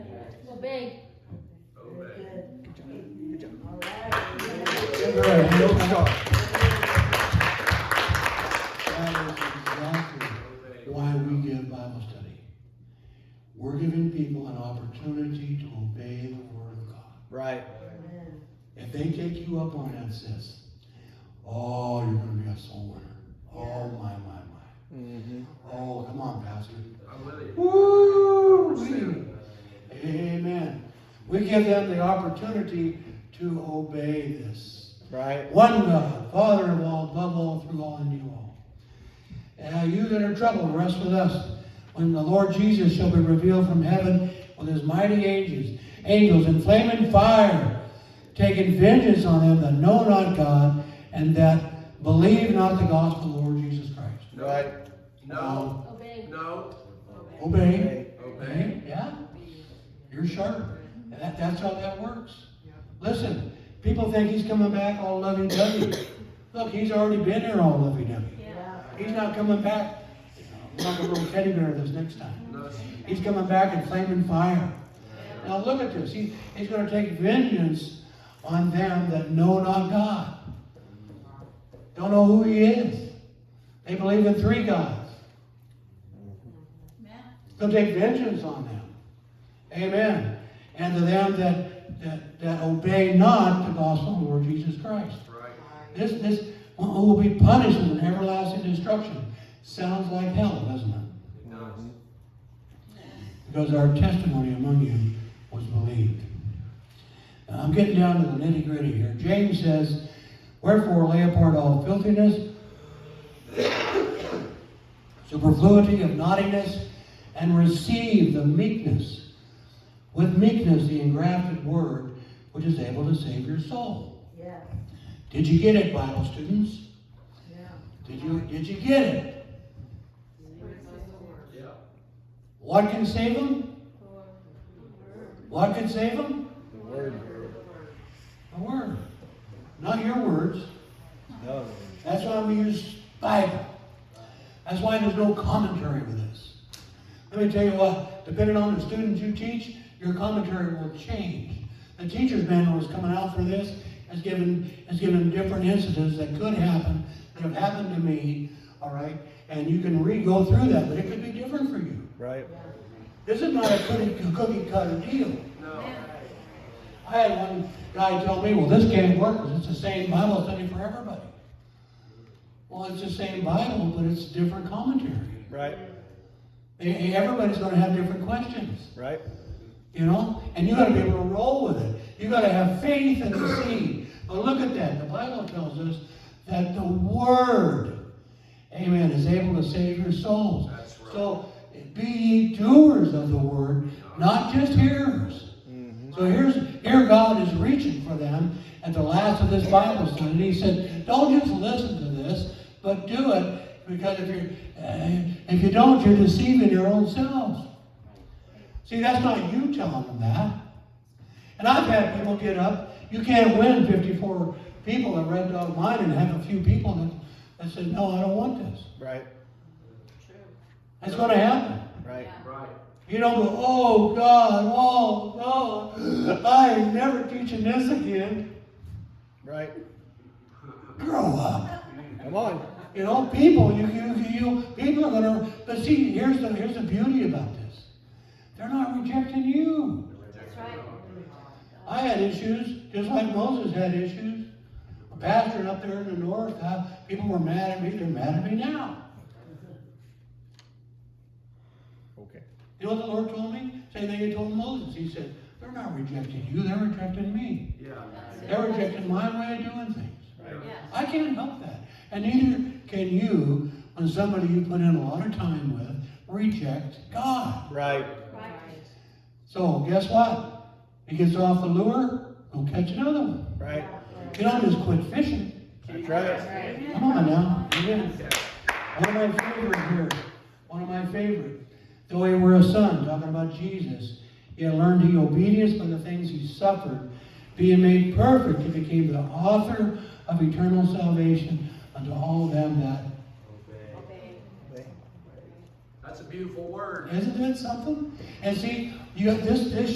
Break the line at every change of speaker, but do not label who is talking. God. That is exactly why we give Bible study. We're giving people an opportunity to obey the Word of God.
Right.
If they take you up on that, sis, oh, you're going to be a soul winner. Oh, my, my, my.
Mm-hmm.
Oh, come on, Pastor.
I'm with you.
Woo! Amen. We give them the opportunity to obey this.
Right.
One God, Father of all, above all, through all, and in you all. And you that are troubled, rest with us. When the Lord Jesus shall be revealed from heaven with his mighty angels, angels in flaming fire, taking vengeance on them that know not God and that believe not the gospel of the Lord Jesus Christ.
Right.
No,
Obey.
no,
Obey.
Hey.
obey.
Right? Yeah. You're sharp. And that, that's how that works. Listen, people think he's coming back all lovey dovey. Look, he's already been here all lovey dovey.
Yeah.
He's not coming back like a little teddy bear this next time.
No, she-
He's coming back in flaming fire. Now look at this. He, he's going to take vengeance on them that know not God. Don't know who he is. They believe in three gods. He'll take vengeance on them. Amen. And to them that, that, that obey not the gospel of the Lord Jesus Christ.
Right.
This, this one who will be punished with an everlasting destruction. Sounds like hell, doesn't
It
it?
does.
Because our testimony among you was believed. Now, I'm getting down to the nitty gritty here. James says, Wherefore lay apart all filthiness, superfluity of naughtiness, and receive the meekness, with meekness the engrafted word, which is able to save your soul.
Yes.
Did you get it, Bible students?
Yeah.
Did you, did you get it?
Yeah.
What can save them? What can save them?
The word.
The word. Not your words.
No.
That's why we use Bible. That's why there's no commentary with this. Let me tell you what, depending on the students you teach, your commentary will change. The teacher's manual is coming out for this, has given, has given different incidents that could happen, that have happened to me, all right? And you can re-go through that, but it could be different for you.
Right.
This is not a cookie, cookie cutter deal.
No.
I had one guy tell me, well, this can't work 'cause it's the same Bible study for everybody. Well, it's the same Bible, but it's different commentary.
Right.
E- e- Everybody's going to have different questions,
Right.
you know? And you got to be able to roll with it. you got to have faith in the seed. But look at that. The Bible tells us that the Word, amen, is able to save your souls.
That's right.
So be ye doers of the Word, not just hearers.
Mm-hmm.
So here's here God is reaching for them at the last of this Bible study. He said, "Don't just listen to this, but do it because if you uh, if you don't, you're deceiving your own selves." See, that's not you telling them that. And I've had people get up. You can't win 54 people that read Dog Mine and have a few people that, that said, "No, I don't want this."
Right.
That's going to happen.
Right.
Right.
You don't go, oh God, oh God, I ain't never teaching this again.
Right.
Grow up.
Come on.
You know, people, you, you, you, people are gonna. But see, here's the here's the beauty about this. They're not rejecting you.
That's right.
I had issues, just like Moses had issues. A pastor up there in the north, uh, people were mad at me. They're mad at me now.
Okay.
You know what the Lord told me? Same thing He told Moses. He said, "They're not rejecting you. They're rejecting me.
Yeah.
They're rejecting my way of doing things."
Yeah.
I can't help that. And neither can you when somebody you put in a lot of time with rejects God.
Right.
Right.
So guess what? He gets off the lure, go catch another one.
Right.
You don't just quit fishing.
That's right.
Right.
Come on now. Amen.
Yeah.
One of my favorite here. One of my favorite. Though he were a son, talking about Jesus, yet learned he obedience by the things he suffered. Being made perfect, he became the author of eternal salvation unto all them that
Obey.
Obey.
That's a beautiful word.
Isn't that something? And see, you got this, this